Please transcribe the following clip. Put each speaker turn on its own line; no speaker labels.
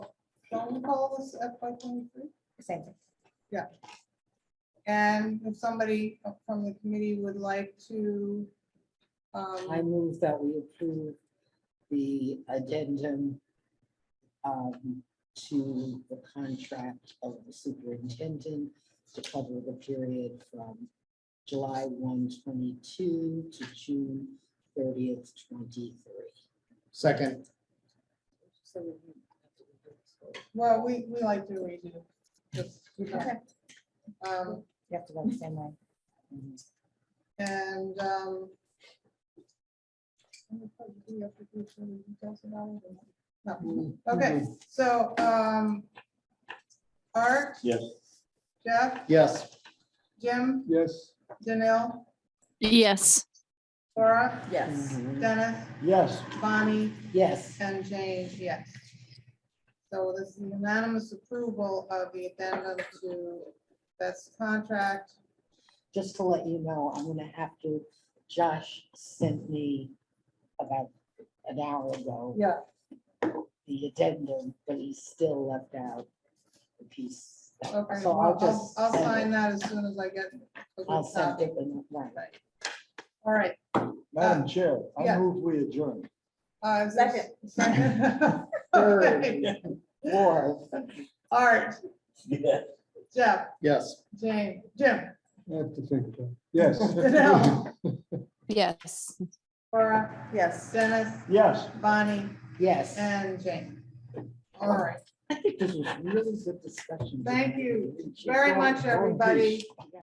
phone calls at five twenty-three?
Same thing.
And if somebody from the committee would like to,
I
um,
move that we approve the addendum um, to the contract of the superintendent to cover the period from July 1, 22 to June thirtieth, twenty-three.
Second,
well, we, we like to read it. just, you know,
Okay.
um,
You have to go the same way.
And, um, no. okay, so, um, Art,
Yes.
Jeff,
yes.
Jim,
Yes.
Danil,
yes.
Laura,
Yes.
Mm-hmm.
Dennis,
Yes.
Bonnie,
Yes.
And James, yes. So this is unanimous approval of the addendum to this contract.
just to let you know, I'm gonna have to, Josh sent me about an hour ago.
Yeah.
The addendum, but he still left out the piece.
Okay,
So
well,
I'll
I'll,
just.
I'll
send it.
sign that as soon as I get. a
I'll
good
send
copy.
it when, right.
All right.
Ah,
Madam Chair, I
Yeah.
move we adjourn.
uh, is this-
Third. Or,
Art, Jeff,
Yes.
James, Jim,
I have to think about it. Yes.
Danil,
Yes.
Laura,
Yes.
Dennis,
Yes.
Bonnie,
yes.
and James. All right,
I think this was really good discussion.
Thank you very much, everybody.